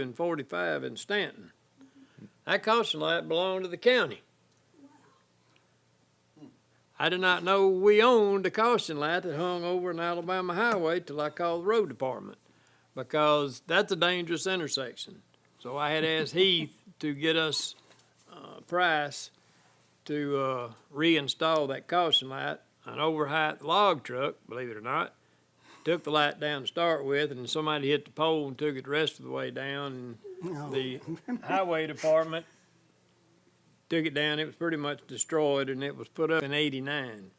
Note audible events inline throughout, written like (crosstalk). and forty-five in Stanton. That caution light belonged to the county. I did not know we owned a caution light that hung over an Alabama highway till I called the road department, because that's a dangerous intersection. So I had asked Heath to get us a price to, uh, reinstall that caution light. An overhyped log truck, believe it or not, took the light down to start with, and somebody hit the pole and took it the rest of the way down, and the highway department took it down, it was pretty much destroyed, and it was put up in eighty-nine.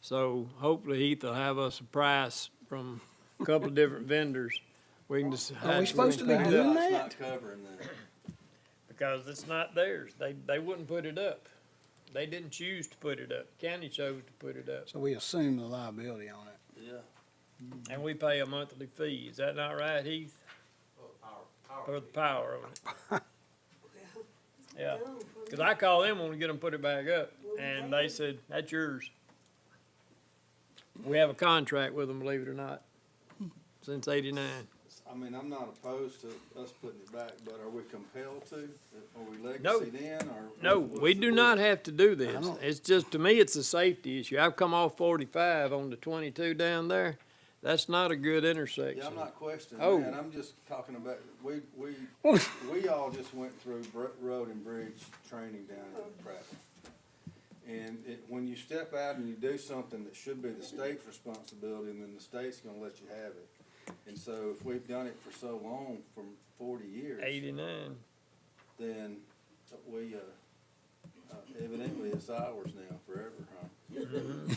So hopefully Heath will have us a price from a couple of different vendors. We can just. Are we supposed to be doing that? Because it's not theirs, they, they wouldn't put it up. They didn't choose to put it up, county chose to put it up, So we assume the liability on it. and we pay a monthly fee, is that not right, Heath? For the power on it. Yeah, cause I called them when we get them put it back up, and they said, that's yours. We have a contract with them, believe it or not, since eighty-nine. I mean, I'm not opposed to us putting it back, but are we compelled to? Are we No. legacy then, or? No, what's we the do deal? not have to do this. don't- It's just, to me, it's a safety issue. I've come off forty-five on the twenty-two down there. That's not a good Yeah, intersection. I'm not questioning Oh. that, I'm just talking about, we, (laughs) we, Well- we all just went through br- road and bridge training down in Prattville. And it, when you step out and you do something that should be the state's responsibility, and then the state's gonna let you have it. And so if we've done it for so long, for forty years. Eighty-nine. then we, uh, uh, evidently it's ours now forever, huh?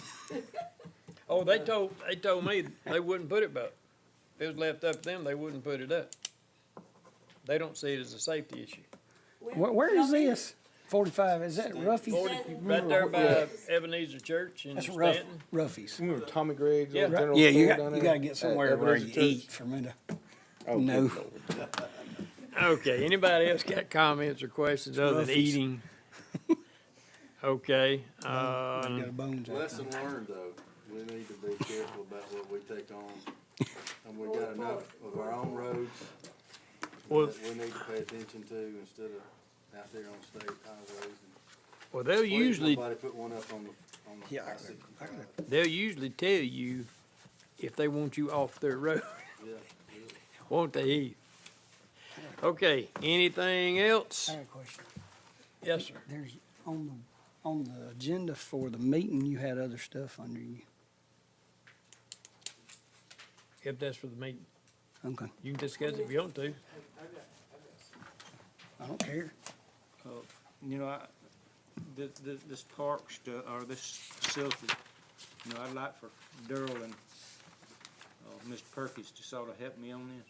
Oh, they told, they told me they wouldn't put it up. If it was left up to them, they wouldn't put it up. They don't see it as a safety issue. Where, where is this? Forty-five, is that Ruffy's? Forty, You right remember there what- by Ebenezer Church in Mm. That's Ruff, Stanton. Ruffy's. You Remember Tommy Gregg's Yeah. old general Yeah, store you down got, you there gotta get at somewhere where Ebenezer you Church? eat for me to, no. Okay, anybody else got comments or questions other than Ruffy's. eating? (laughs) Okay, I uh, got a bones out Lesson learned, though, we need to be careful about what we take on, and we got enough of our own roads Well- that we need to pay attention to instead of out there on state highways. and- well, they'll Please, usually Nobody put one up on the, on the. Yeah, I I got- see. I got They'll usually tell you if they want you off their (laughs) road, Yeah, won't they, Heath? Okay, anything else? I got a question. Yes, sir. There's, on the, on the agenda for the meeting, you had other stuff under you. If that's for the meeting, Okay, you can discuss it if you want to. I don't care. You know, I, this, this, this park stu- or this facility, you know, I'd like for Daryl and, uh, Mr. Perkins to sort of help me on this.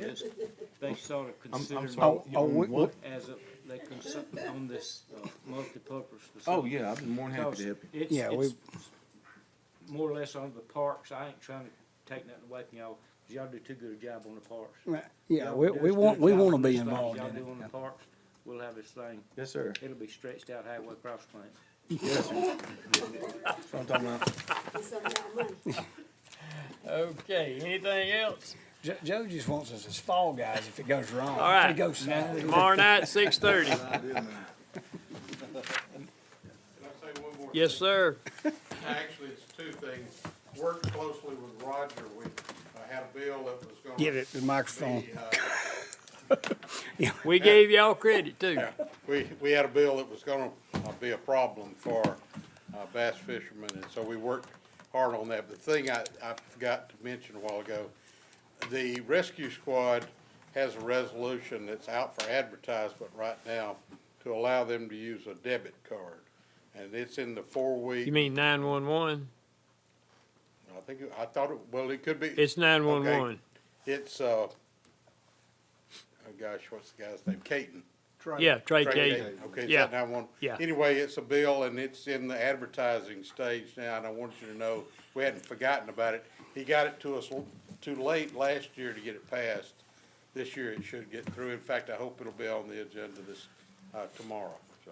Cause it's, they sort of sorry. consider Oh, it you oh, own we, we, what? as a, they consider on this, uh, multipurpose facility. Oh, yeah, I've been more than happy Because to help you. it's, Yeah, it's more or less on the parks. I ain't trying to take nothing away from y'all, 'cause y'all do too good a job on the parks. right, yeah, Y'all we, do we as good want, a we job wanna on these be things involved y'all in do on the it. parks, we'll have this thing Yes, sir. It'll be stretched out halfway across plant. Yes, sir. That's what I'm talking about. Okay, anything else? Jo- Joe just wants us as fall guys if it goes wrong. All If right. it goes south. Tomorrow night, six (laughs) thirty. I did, man. Can I say one more? Yes, thing? sir. Actually, it's two things. Worked closely with Roger. We uh, had a bill that was gonna. Give it the microphone. be, uh, We gave y'all credit too. We, we had a bill that was gonna uh, be a problem for uh, bass fishermen, and so we worked hard on that. The thing I, I forgot to mention a while ago, the rescue squad has a resolution that's out for advertisement right now to allow them to use a debit card. And it's in the four-week. You mean nine-one-one? I think, it- I thought, it well, it could be. It's nine-one-one. It's, uh, oh gosh, what's the guy's name? Caton. Yeah, Trey Craig Kate. Okay, is Yeah. that nine one? Yeah. Anyway, it's a bill and it's in the advertising stage now, and I want you to know, we hadn't forgotten about it. He got it to us l- too late last year to get it passed. This year it should get through. In fact, I hope it'll be on the agenda this, uh, tomorrow, so.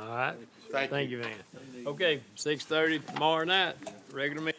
All right. Thank you. Thank you, Van. Okay, six thirty tomorrow night, regular meeting.